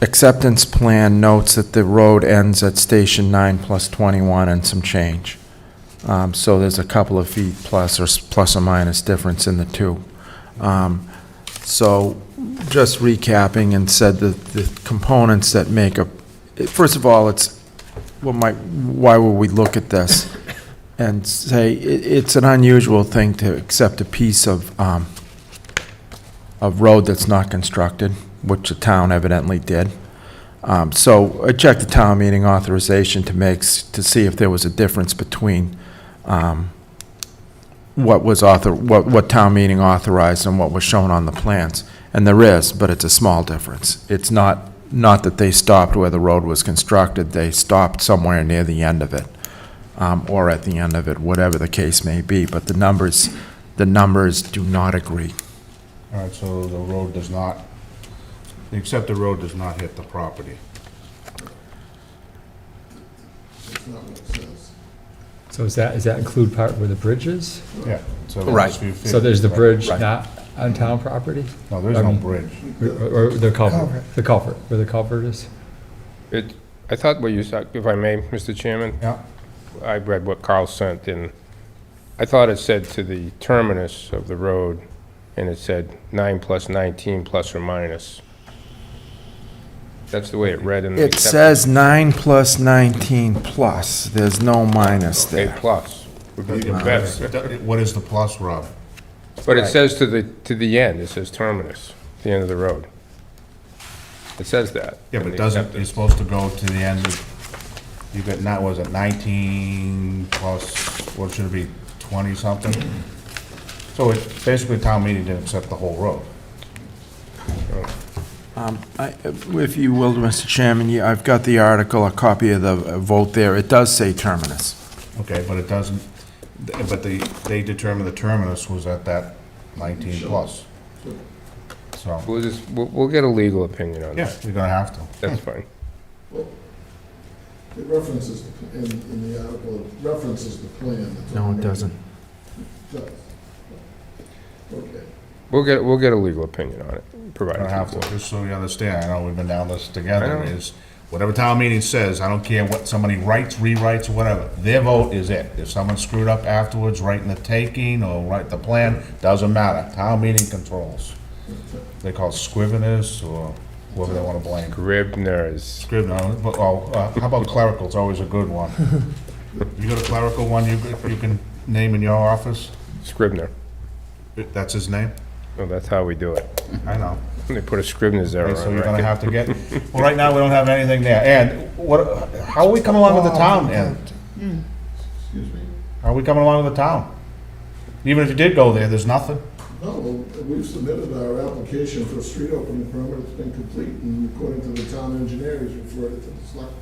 acceptance plan notes that the road ends at Station 9 plus 21 and some change. Um, So there's a couple of feet plus or, s- plus or minus difference in the two. Um, So just recapping and said that the components that make up, first of all, it's, well, my, why would we look at this? And say, it, it's an unusual thing to accept a piece of, um, of road that's not constructed, which the town evidently did. Um, So I checked the town meeting authorization to make, s- to see if there was a difference between um, what was author, what, what town meeting authorized and what was shown on the plans. And there is, but it's a small difference. It's not, not that they stopped where the road was constructed, they stopped somewhere near the end of it, um, or at the end of it, whatever the case may be, but the numbers, the numbers do not agree. All right, so the road does not, the accepted road does not hit the property. So is that, does that include part where the bridge is? Yeah. so that's Right. 350. So there's the bridge Right. not on town property? No, there's no um, bridge. Or or the culvert, the culvert, where the culvert is? It, I thought what you said, if I may, Mr. Chairman, Yeah, I read what Carl sent, and I thought it said to the terminus of the road, and it said nine plus 19 plus or minus. That's the way it read in the... It acceptance. says nine plus nineteen plus, there's no minus A there. plus would be the best. what is the plus, Rob? But it says to the, to the end, it says terminus, the end of the road. It says that. Yeah, in but it the doesn't, acceptance. it's supposed to go to the end of, you got, not, was it nineteen plus, what should it be, twenty something? So it, basically, town meeting didn't accept the whole road. Um, I- If you will, Mr. Chairman, you- I've got the article, a copy of the uh, vote there, it does say terminus. Okay, but it doesn't, but they, they determined the terminus was at that nineteen plus. So, We'll just, we'll, we'll get a legal opinion on yeah, that. you're gonna have to. That's fine. It references, the- in, in the article, it references the plan. that's No, it already- doesn't. Does. Okay. We'll get, we'll get a legal opinion on it, I provided. don't have to, just so you understand, I know we've been down this together, I know. is whatever town meeting says, I don't care what somebody writes, rewrites, or whatever, their vote is it. If someone screwed up afterwards, writing the taking or write the plan, doesn't matter, town meeting controls. They call it scriveners or whoever they wanna blame. Scribner's. Scrivener, but, oh, uh, how about clerical, it's always a good one. You got a clerical one you, you can name in your office, Scribner. that's his name? Well, that's how we do it. I know. They put a Scribner's error Okay, So on you're gonna record. have to get, well, right now, we don't have anything there, and what, how are we coming along with the town, Ed? Excuse me? How are we coming along with the town? Even if you did go there, there's nothing, No, well, we've submitted our application for a street opening permit, it's been complete, and according to the town engineer, he's referred it to the select.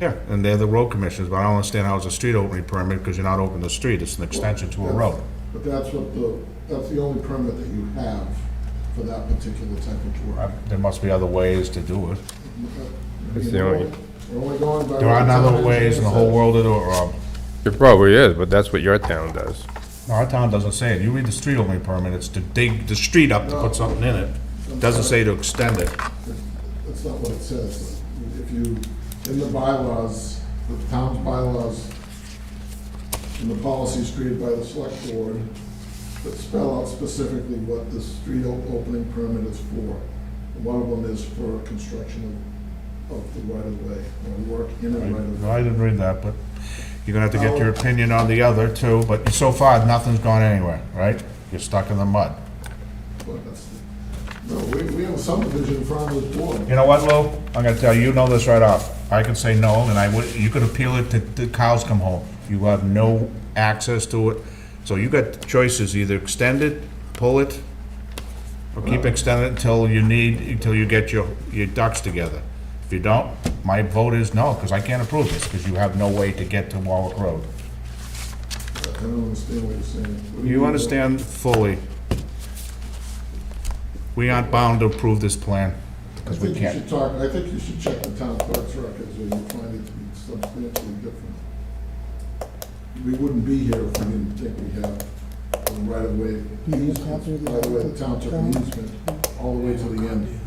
yeah, and they're the road commissioners, but I don't understand how it's a street opening permit, because you're not opening the street, it's an extension to a road. But that's what the, that's the only permit that you have for that particular type of Uh, work. There must be other ways to do it. That's the only- We're only going by. There are what the not town other ways in the engineer whole said. world to do it, Rob. It probably is, but that's what your town does. No, Our town doesn't say it. You read the street opening permit, it's to dig the street up to put something in it. Doesn't say to extend it. That's not what it says. If you, in the bylaws, the town's bylaws, and the policies created by the select board, that spell out specifically what the street o- opening permit is for. And One of them is for construction of, of the right-of-way, or work in a right-of-way. I didn't read that, but you're gonna have to get your opinion on the other too, but so far, nothing's gone anywhere, right? You're stuck in the mud. But that's- No, we, we have a subdivision in front of this board. You know what, Lou? I'm gonna tell you, you know this right off. I could say no, and I would, you could appeal it to, the cows come home. You have no access to it. So you got choices, either extend it, pull it, or keep extending it until you need, until you get your, your ducks together. If you don't, my vote is no, because I can't approve this, because you have no way to get to Warwick Road. I don't understand what you're saying. What do You mean? understand fully. We aren't bound to approve this plan, I because we think you can't. should talk, I think you should check the town clerk's records, or you'll find it to be substantially different. We wouldn't be here if we didn't think we have a right-of-way Do you have to- easement, by the way, the town took an easement all the way to the end.